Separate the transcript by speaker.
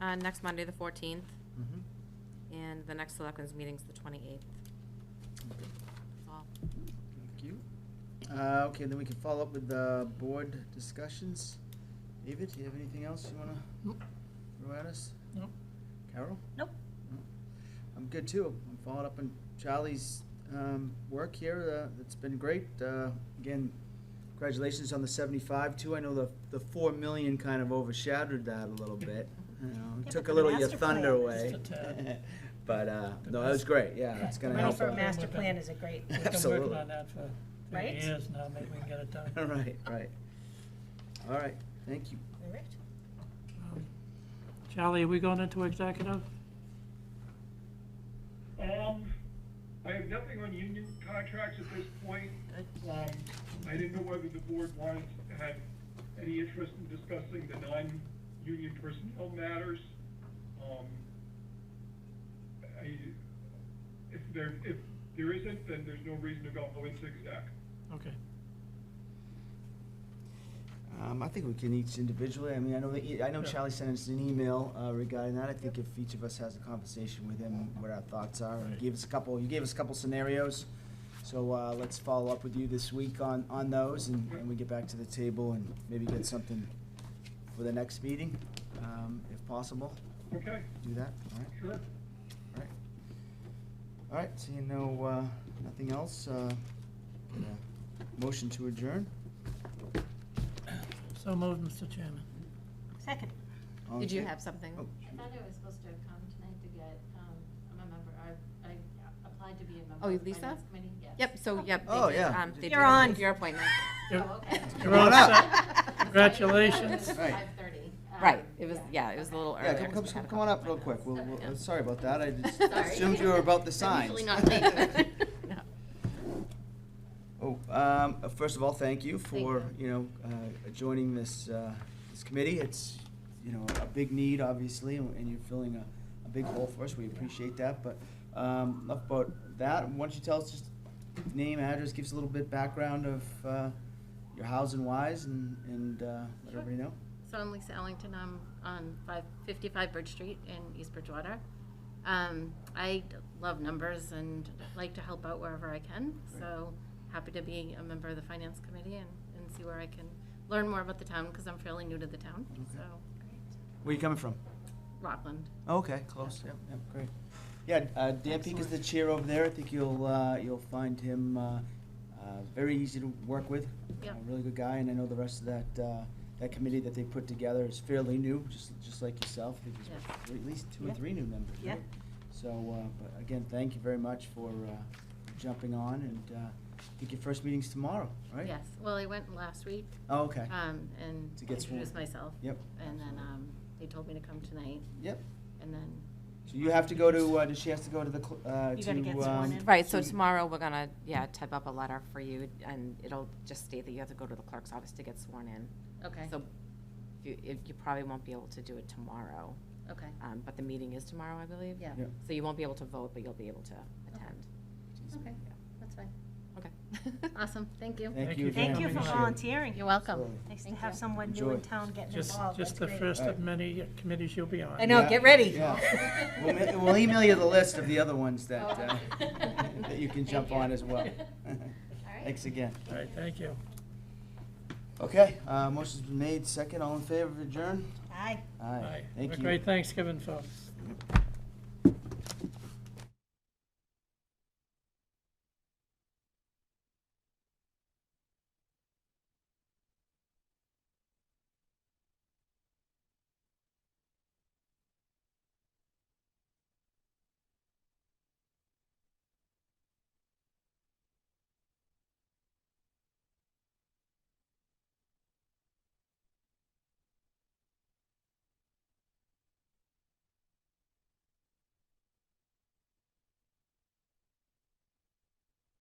Speaker 1: Uh, next Monday, the fourteenth,
Speaker 2: Mhm.
Speaker 1: and the next selectmen's meeting's the twenty-eighth.
Speaker 2: Okay.
Speaker 1: That's all.
Speaker 2: Thank you. Uh, okay, then we can follow up with the board discussions. David, do you have anything else you wanna
Speaker 3: Nope.
Speaker 2: throw at us?
Speaker 3: Nope.
Speaker 2: Carol?
Speaker 4: Nope.
Speaker 2: No. I'm good too. I'm following up on Charlie's, um, work here. Uh, it's been great. Uh, again, congratulations on the seventy-five too. I know the, the four million kind of overshadowed that a little bit. You know,
Speaker 4: but
Speaker 2: took a
Speaker 4: the
Speaker 2: little of your
Speaker 4: master plan
Speaker 2: thunder
Speaker 4: is
Speaker 2: away.
Speaker 3: just a-
Speaker 2: But, uh,
Speaker 3: The
Speaker 2: no, it was
Speaker 3: best-
Speaker 2: great. Yeah, it's gonna
Speaker 4: Money
Speaker 2: help.
Speaker 4: for a
Speaker 2: out.
Speaker 4: master plan is a great,
Speaker 3: We've
Speaker 2: Absolutely.
Speaker 3: been working on that for three
Speaker 4: Right?
Speaker 3: years now, maybe we can get it done.
Speaker 2: Right, right. All right, thank you.
Speaker 4: all right.
Speaker 3: Um, Charlie, are we going into executive?
Speaker 5: Um, I have nothing on union contracts at this point. Um, I didn't know whether the board wanted, had any interest in discussing the non-union personnel matters. Um, I, if there, if there isn't, then there's no reason to go into exec.
Speaker 3: Okay.
Speaker 2: Um, I think we can each individually, I mean, I know that, e- I know
Speaker 3: Yeah.
Speaker 2: Charlie sent us an email uh, regarding that. I think if each of us has a conversation with him, what our thoughts are, and
Speaker 3: Right.
Speaker 2: gave us a couple, you gave us a couple scenarios. So, uh, let's follow up with you this week on, on those, and, and we get back to the table and maybe get something for the next meeting, um, if possible.
Speaker 5: Okay,
Speaker 2: Do that, all right?
Speaker 5: sure.
Speaker 2: All right. All right, so you know, uh, nothing else, uh, uh, motion to adjourn?
Speaker 3: So moved, Mr. Chairman.
Speaker 4: Second.
Speaker 2: All in
Speaker 1: Did you
Speaker 2: fa-
Speaker 1: have something?
Speaker 2: Oh,
Speaker 6: I thought I was supposed to come tonight to get, um, I'm a member, I, I applied to be a member.
Speaker 1: Oh,
Speaker 6: of the
Speaker 1: Lisa?
Speaker 6: Finance Committee, yes.
Speaker 1: Yep, so, yep. they
Speaker 2: Oh,
Speaker 1: did,
Speaker 2: yeah.
Speaker 1: um, they did
Speaker 4: You're on.
Speaker 1: Your appointment.
Speaker 6: Oh, okay.
Speaker 3: You're on up.
Speaker 6: It
Speaker 3: Congratulations.
Speaker 6: was
Speaker 2: Right.
Speaker 6: five thirty. Um,
Speaker 1: Right, it was, yeah, it was a
Speaker 6: okay.
Speaker 1: little
Speaker 2: Yeah,
Speaker 1: earlier.
Speaker 2: come,
Speaker 1: 'cause we had
Speaker 2: come, come
Speaker 1: a
Speaker 2: come on
Speaker 1: couple
Speaker 2: up real quick,
Speaker 1: appointments.
Speaker 2: we'll,
Speaker 6: Okay.
Speaker 2: we'll, sorry about that, I just
Speaker 6: Sorry.
Speaker 2: assumed you were about the
Speaker 6: I'm
Speaker 2: signs.
Speaker 6: usually not late.
Speaker 2: Oh, um, uh, first of all, thank you for,
Speaker 6: Thank
Speaker 2: you know, uh, joining this, uh, this committee. It's, you know, a big need, obviously, and and you're filling a, a big hole for us. We appreciate that, but, um, enough about that. Why don't you tell us just name, address, give us a little bit background of, uh, your hows and whys and, and, uh, let
Speaker 6: Sure.
Speaker 2: everybody know.
Speaker 6: So I'm Lisa Ellington, I'm on five, fifty-five Bridge Street in East Bridgewater. Um, I love numbers and like to help out wherever I can, so happy to be a member of the Finance Committee and, and see where I can
Speaker 2: Um,
Speaker 6: learn more about the town, because I'm fairly new to the town, so.
Speaker 2: Where you coming from?
Speaker 6: Rockland.
Speaker 2: Okay, close, yep, yep, great. Yeah, uh, Dan Peak is the chair over there, I think you'll, uh, you'll find him, uh, uh, very easy to work with.
Speaker 6: Yeah.
Speaker 2: A Really good guy, and I know the rest of that, uh, that committee that they put together is fairly new, just, just like yourself, I think there's
Speaker 6: Yes.
Speaker 2: at least two or
Speaker 6: Yeah.
Speaker 2: three new members,
Speaker 6: Yeah.
Speaker 2: right? So, uh, but again, thank you very much for, uh, jumping on, and, uh, I think your first meeting's tomorrow, right?
Speaker 6: Yes, well, I went last week,
Speaker 2: Oh, okay,
Speaker 6: um, and
Speaker 2: To get sworn.
Speaker 6: introduced myself.
Speaker 2: yep,
Speaker 6: And then, um, they told me to come tonight,
Speaker 2: yep,
Speaker 6: and then,
Speaker 2: so you have to go to, uh, does she have to go to the, cl- uh, to, um.
Speaker 4: You gotta get sworn in.
Speaker 1: Right, so
Speaker 2: to-
Speaker 1: tomorrow, we're gonna, yeah, type up a letter for you, and it'll just state that you have to go to the clerk's office to get sworn in.
Speaker 6: okay,
Speaker 1: So if you, if- you probably won't be able to do it tomorrow,
Speaker 6: okay,
Speaker 1: um, but the meeting is tomorrow, I believe.
Speaker 6: yeah,
Speaker 2: Yeah.
Speaker 1: So you won't be able to vote, but you'll be able to attend.
Speaker 6: okay, that's fine.
Speaker 1: Okay.
Speaker 6: Awesome, thank you.
Speaker 2: Thank you
Speaker 3: Thank
Speaker 2: again.
Speaker 3: you for
Speaker 2: Appreciate it.
Speaker 6: You're welcome.
Speaker 2: Absolutely.
Speaker 4: Nice to
Speaker 6: Thank
Speaker 4: have
Speaker 6: you.
Speaker 4: someone new in
Speaker 2: Enjoy.
Speaker 4: town getting
Speaker 3: Just,
Speaker 4: involved.
Speaker 3: just
Speaker 4: That's
Speaker 3: the
Speaker 4: great.
Speaker 3: first
Speaker 2: Right.
Speaker 3: of many committees you'll be on.
Speaker 6: I know,
Speaker 2: Yeah.
Speaker 6: get ready.
Speaker 2: Yeah. We'll ma- We'll email you the list of the other ones that, uh,
Speaker 6: Oh.
Speaker 2: that you can
Speaker 6: Thank
Speaker 2: jump
Speaker 6: you.
Speaker 2: on as well.
Speaker 6: All right.
Speaker 2: Thanks again.
Speaker 3: All right, thank you.
Speaker 2: Okay, uh, motion's been made, second, all in favor of adjourn?
Speaker 4: Aye.
Speaker 2: Aye,
Speaker 3: Bye. Have
Speaker 2: thank
Speaker 3: a
Speaker 2: you.
Speaker 3: great Thanksgiving, folks.